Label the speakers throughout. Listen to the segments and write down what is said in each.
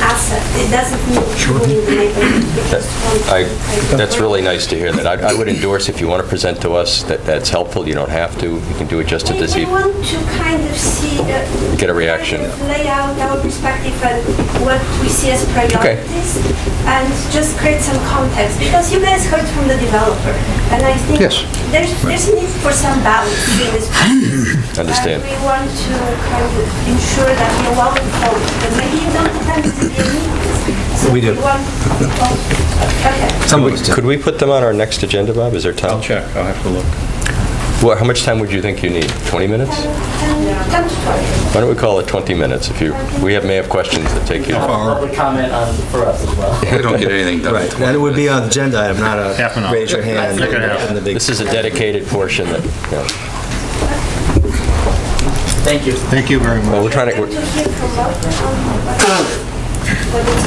Speaker 1: it doesn't include the
Speaker 2: I,
Speaker 1: neighborhood.
Speaker 2: that's really nice to hear that. I I would endorse, if you want to present to us, that that's helpful, you don't have to, you can do it just at
Speaker 1: We
Speaker 2: this
Speaker 1: we
Speaker 2: evening.
Speaker 1: want to kind of see... uh,
Speaker 2: Get a reaction.
Speaker 1: kind of Lay out our perspective and what we see as priorities and just create some context because you guys heard from the developer and I think
Speaker 3: Yes.
Speaker 1: there's there's a need for some balance in this. process.
Speaker 2: Understand.
Speaker 1: And we want to kind of ensure that we're well informed because maybe you don't attend the meetings. So
Speaker 4: We do.
Speaker 1: want- oh, Okay.
Speaker 4: Some of us do.
Speaker 2: Could we put them on our next agenda, Bob? Is there
Speaker 5: I'll
Speaker 2: time?
Speaker 5: check, I'll have to look.
Speaker 2: Well, how much time would you think you need? 20 minutes?
Speaker 1: And come to talk.
Speaker 2: Why don't we call it 20 minutes if you, we have- may have questions that take you.
Speaker 6: have a public comment on, for us as well.
Speaker 7: They don't get anything done.
Speaker 4: Right, that would be an agenda item, not a
Speaker 5: Half an hour.
Speaker 4: raise your hand.
Speaker 5: Half an hour.
Speaker 4: and the big-
Speaker 2: This is a dedicated portion that, yeah.
Speaker 6: Thank you.
Speaker 5: Thank you very
Speaker 2: well, we're
Speaker 5: much.
Speaker 2: trying to,
Speaker 1: To
Speaker 2: we're-
Speaker 1: hear from Walter on what- what is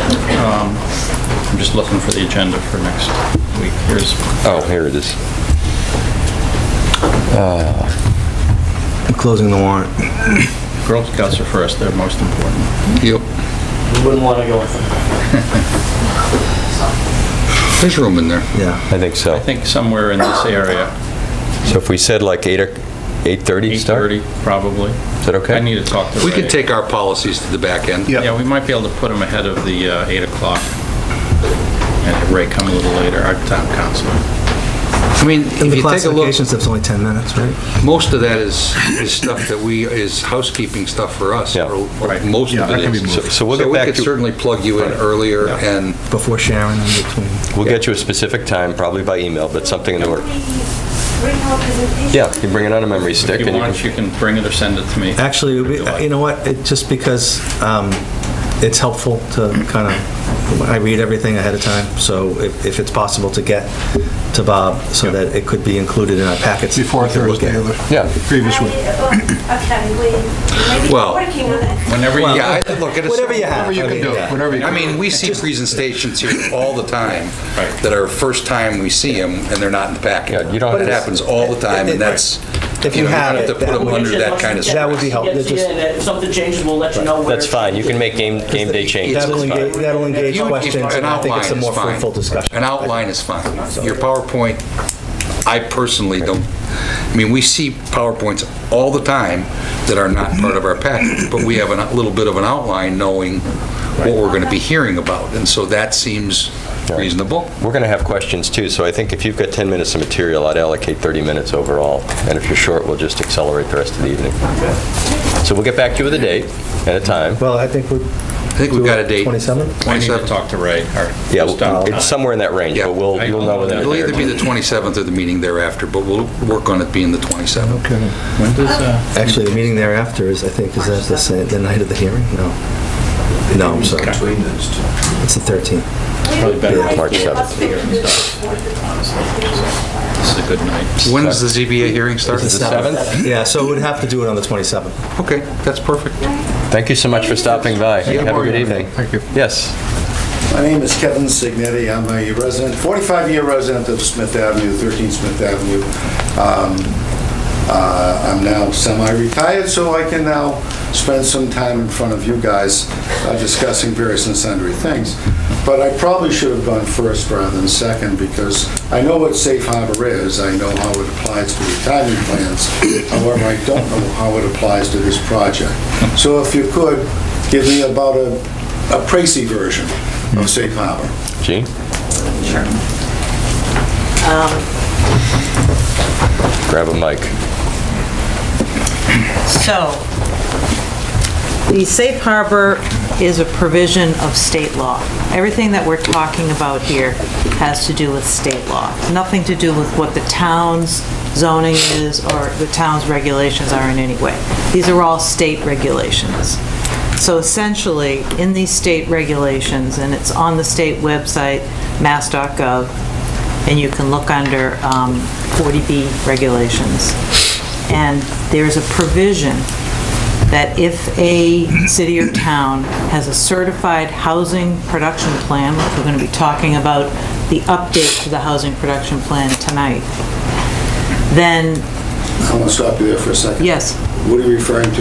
Speaker 1: possible.
Speaker 5: Um, I'm just looking for the agenda for next week. Here's,
Speaker 2: oh, here it is.
Speaker 4: I'm Closing the warrant.
Speaker 5: Girl Scouts are first, they're most important.
Speaker 7: Yep.
Speaker 6: We wouldn't want to go with
Speaker 7: There's room in there.
Speaker 4: Yeah,
Speaker 2: I think so.
Speaker 5: I think somewhere in this area,
Speaker 2: So if we said like 8 or 8:30 start?
Speaker 5: 8:30 probably.
Speaker 2: Is that okay?
Speaker 5: I need to talk to Ray.
Speaker 7: We could take our policies to the back end.
Speaker 5: Yeah, we might be able to put them ahead of the uh, 8 o'clock. And have Ray come a little later, our town council.
Speaker 7: I mean,
Speaker 4: and
Speaker 7: if
Speaker 4: the
Speaker 7: you take a look,
Speaker 4: classification stuff's only 10 minutes, right?
Speaker 7: most of that is, is stuff that we, is housekeeping stuff for us.
Speaker 2: Yeah.
Speaker 7: or- or Most of
Speaker 5: that can
Speaker 7: it
Speaker 5: be
Speaker 7: is.
Speaker 2: moved. So- so we'll get back
Speaker 7: we could
Speaker 2: to-
Speaker 7: certainly plug you in earlier and
Speaker 4: Before Sharon and between.
Speaker 2: We'll get you a specific time, probably by email, but something in the work.
Speaker 1: We bring our presentation.
Speaker 2: Yeah, you bring it on a memory stick.
Speaker 5: If
Speaker 2: and
Speaker 5: you
Speaker 2: you
Speaker 5: want,
Speaker 2: can-
Speaker 5: you can bring it or send it to me.
Speaker 4: Actually, it would
Speaker 5: If you like.
Speaker 4: be- you know what, it, just because um, it's helpful to kind of, I read everything ahead of time, so if, if it's possible to get to Bob, so that it could be included in our packets.
Speaker 8: Before
Speaker 4: we could look
Speaker 8: Thursday
Speaker 4: at it.
Speaker 8: of the
Speaker 2: Yeah,
Speaker 8: previous
Speaker 1: I-
Speaker 8: week.
Speaker 1: oh, Okay, we, maybe
Speaker 7: Well-
Speaker 1: working on it.
Speaker 5: Whenever you...
Speaker 7: Yeah, I, look, it's...
Speaker 4: Whatever you have.
Speaker 8: Whatever you
Speaker 4: I
Speaker 8: can
Speaker 4: mean,
Speaker 8: do,
Speaker 4: yeah.
Speaker 8: whatever you
Speaker 7: I
Speaker 8: can.
Speaker 7: mean, we see presentations here all the time
Speaker 5: Right.
Speaker 7: that are first time we see them, and they're not in the packet.
Speaker 2: Yeah, you don't
Speaker 7: But
Speaker 2: have
Speaker 7: it
Speaker 2: to-
Speaker 7: happens all the time, and that's,
Speaker 4: If you
Speaker 7: you know, you
Speaker 4: have
Speaker 7: don't have
Speaker 4: it,
Speaker 7: to put
Speaker 4: that
Speaker 7: them
Speaker 4: would-
Speaker 7: under that kind of...
Speaker 4: That would be
Speaker 7: stress.
Speaker 4: helpful.
Speaker 6: Yes,
Speaker 4: Just-
Speaker 6: yeah, and if something changes, we'll let you know where.
Speaker 2: that's fine. You can make game, game day changes.
Speaker 4: That'll
Speaker 2: That's
Speaker 4: engage,
Speaker 2: fine.
Speaker 4: that'll engage
Speaker 7: You- if-
Speaker 4: questions,
Speaker 7: an
Speaker 4: and I think it's a
Speaker 7: outline is
Speaker 4: more
Speaker 7: fine.
Speaker 4: fruitful discussion.
Speaker 7: An outline is fine. Your PowerPoint, I personally don't, I mean, we see PowerPoints all the time that are not part of our package, but we have a little bit of an outline knowing what we're going to be hearing about, and so that seems reasonable.
Speaker 2: We're going to have questions too, so I think if you've got 10 minutes of material, I'd allocate 30 minutes overall. And if you're short, we'll just accelerate the rest of the evening. So we'll get back to you with a date and a time.
Speaker 4: Well, I think we,
Speaker 7: I think we've got a date.
Speaker 4: 27?
Speaker 5: I need to
Speaker 7: 27th.
Speaker 5: talk to Ray. our
Speaker 2: Yeah,
Speaker 5: town
Speaker 2: it's
Speaker 5: council.
Speaker 2: somewhere in that range,
Speaker 7: uh, Yeah.
Speaker 2: but we'll, you'll know within a
Speaker 7: It'll
Speaker 2: day or
Speaker 7: either be
Speaker 2: two.
Speaker 7: the 27th or the meeting thereafter, but we'll work on it being the 27th.
Speaker 4: Okay.
Speaker 5: When does, uh,
Speaker 4: Actually, the meeting thereafter is, I think, is that the same, the night of the hearing? No. No, I'm sorry. It's the 13th.
Speaker 5: probably better
Speaker 1: I
Speaker 2: March
Speaker 1: think
Speaker 2: 7th.
Speaker 1: hospital is for the-
Speaker 5: This is a good night.
Speaker 7: When does the ZBA hearing start?
Speaker 4: It's Yeah, so we'd have to do it on the 27th.
Speaker 7: Okay, that's perfect.
Speaker 2: Thank you so much for stopping by. Have a
Speaker 7: Mario.
Speaker 2: good evening. Thank you. Yes.
Speaker 9: My name is Kevin Signetti. I'm a resident, 45-year resident of Smith Avenue, 13 Smith Avenue. Um, uh, I'm now semi-retired, so I can now spend some time in front of you guys uh, discussing various and sundry things. But I probably should have gone first rather than second, because I know what safe harbor is, I know how it applies to retirement plans, however, I don't know how it applies to this project. So if you could, give me about a a précis version of safe harbor.
Speaker 2: Gene?
Speaker 6: Sure.
Speaker 2: Grab a mic.
Speaker 10: So, the safe harbor is a provision of state law. Everything that we're talking about here has to do with state law, nothing to do with what the town's zoning is or the town's regulations are in any way. These are all state regulations. So essentially, in these state regulations, and it's on the state website, mass.gov, and you can look under um, 40B regulations. And there's a provision that if a city or town has a certified housing production plan, which we're going to be talking about the update to the housing production plan tonight, then,
Speaker 9: I want to stop you there for a second.
Speaker 10: yes,
Speaker 9: What are you referring to